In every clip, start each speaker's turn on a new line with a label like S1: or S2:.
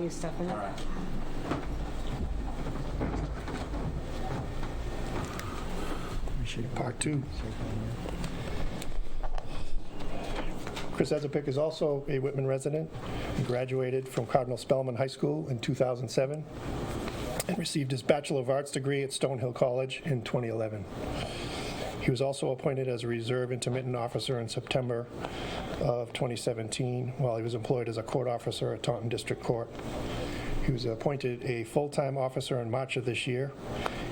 S1: new stuff in
S2: All
S1: it.
S2: right.
S3: Part two. Chris Ezepick is also a Whitman resident, He graduated from Cardinal Spellman High School in 2007, and received his Bachelor of Arts degree at Stonehill College in 2011. He was also appointed as a reserve intermittent officer in September of 2017, while he was employed as a court officer at Taunton District Court. He was appointed a full-time officer in March of this year.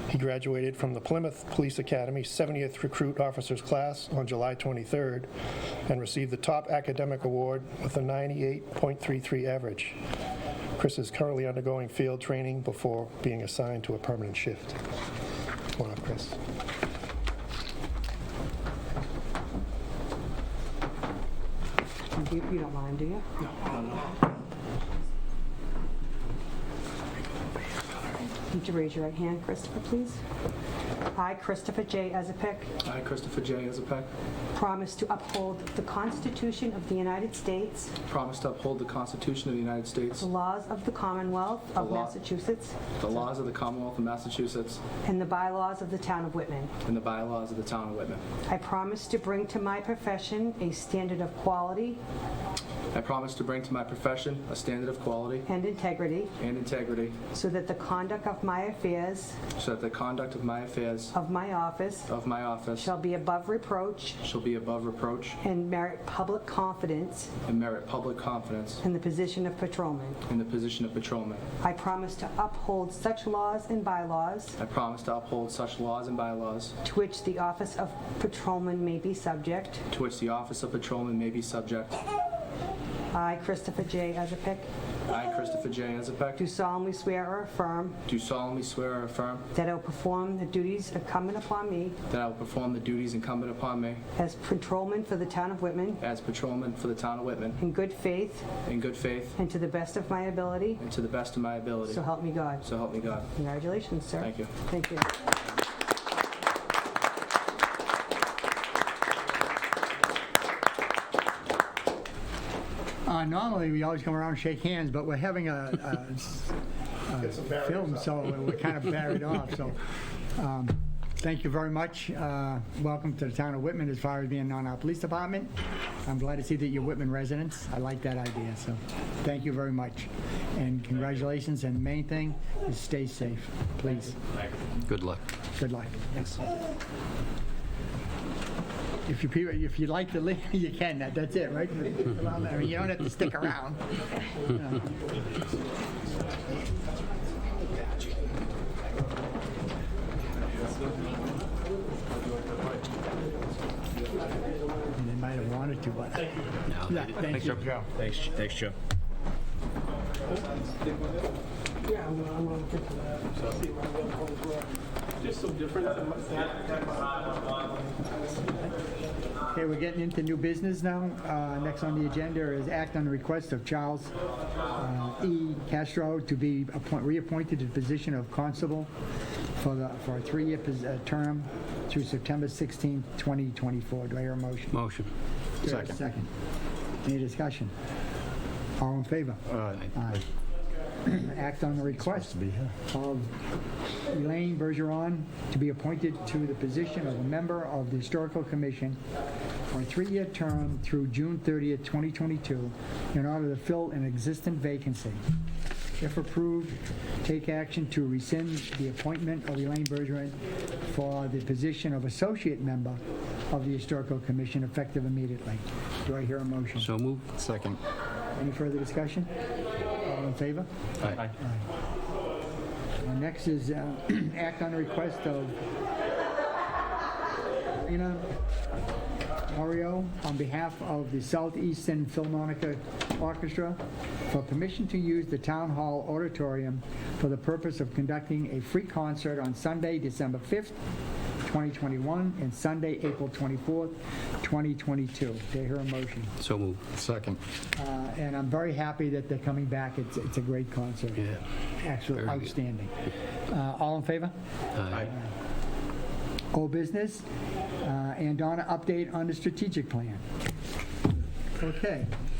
S3: He graduated from the Plymouth Police Academy 70th Recruit Officers Class on July 23rd and received the top academic award with a 98.33 average. Chris is currently undergoing field training before being assigned to a permanent shift. Come on up, Chris.
S1: You you don't mind, do you? Would you raise your right hand, Christopher, please? I, Christopher J. Ezepick,
S4: I, Christopher J. Azapek,
S1: promise to uphold the Constitution of the United States,
S4: promise to uphold the Constitution of the United States,
S1: the laws of the Commonwealth of
S4: The law-
S1: Massachusetts,
S4: the laws of the Commonwealth of Massachusetts,
S1: and the bylaws of the town of Whitman.
S4: and the bylaws of the town of Whitman.
S1: I promise to bring to my profession a standard of quality
S4: I promise to bring to my profession a standard of quality
S1: and integrity
S4: and integrity
S1: so that the conduct of my affairs
S4: so that the conduct of my affairs
S1: of my office
S4: of my office
S1: shall be above reproach
S4: shall be above reproach
S1: and merit public confidence
S4: and merit public confidence
S1: in the position of patrolman.
S4: in the position of patrolman.
S1: I promise to uphold such laws and bylaws
S4: I promise to uphold such laws and bylaws
S1: to which the office of patrolman may be subject.
S4: to which the office of patrolman may be subject.
S1: I, Christopher J. Ezepick,
S4: I, Christopher J.
S1: do
S4: Azapek,
S1: solemnly swear or affirm
S4: do solemnly swear or affirm
S1: that I will perform the duties incumbent upon me
S4: that I will perform the duties incumbent upon me
S1: as patrolman for the town of Whitman
S4: as patrolman for the town of Whitman
S1: in good faith
S4: in good faith
S1: and to the best of my ability,
S4: and to the best of my ability.
S1: so help me God.
S4: So help me God.
S1: Congratulations, sir.
S4: Thank you.
S1: Thank you.
S5: Uh, normally, we always come around and shake hands, but we're having a,
S3: Get some
S5: a film, so we're kind of buried off, so. um, Thank you very much. Uh, Welcome to the town of Whitman as far as being on our police department. I'm glad to see that you're Whitman residents. I like that idea, so thank you very much. And congratulations, and main thing is stay safe, please.
S6: Good luck.
S5: Good luck. Yes. If you, people- if you'd like to leave, you can, That- that's it, right? I mean, you don't have to stick around. And They might have wanted to, but. Yeah, Thank you.
S6: Thanks, thanks, Joe.
S5: Okay, we're getting into new business now. Uh, Next on the agenda is act on the request of Charles uh, E. Castro to be appoint- reappointed to the position of constable for the, for a three-year pos- uh, term through September 16, 2024. Do I hear a motion?
S6: Motion.
S5: Do I hear a Second. Any discussion? All in favor? Aye. Act on the request of Elaine Bergeron to be appointed to the position of a member of the Historical Commission for a three-year term through June 30th, 2022, in order to fill an existing vacancy. If approved, take action to rescind the appointment of Elaine Bergeron for the position of associate member of the Historical Commission effective immediately. Do I hear a motion?
S6: So move. Second.
S5: Any further discussion? All in favor?
S6: Aye.
S5: Uh, Next is uh, act on the request of Rena Mario on behalf of the Southeastern Philharmonic Orchestra for permission to use the Town Hall Auditorium for the purpose of conducting a free concert on Sunday, December 5th, 2021, and Sunday, April 24th, 2022. Do I hear a motion?
S6: So move. Second.
S5: Uh, And I'm very happy that they're coming back. It's it's a great concert.
S6: Yeah.
S5: Absolutely
S6: Very good.
S5: outstanding. Uh, All in favor?
S6: Aye.
S5: Old business? Uh, And Donna, update on the strategic plan. Okay.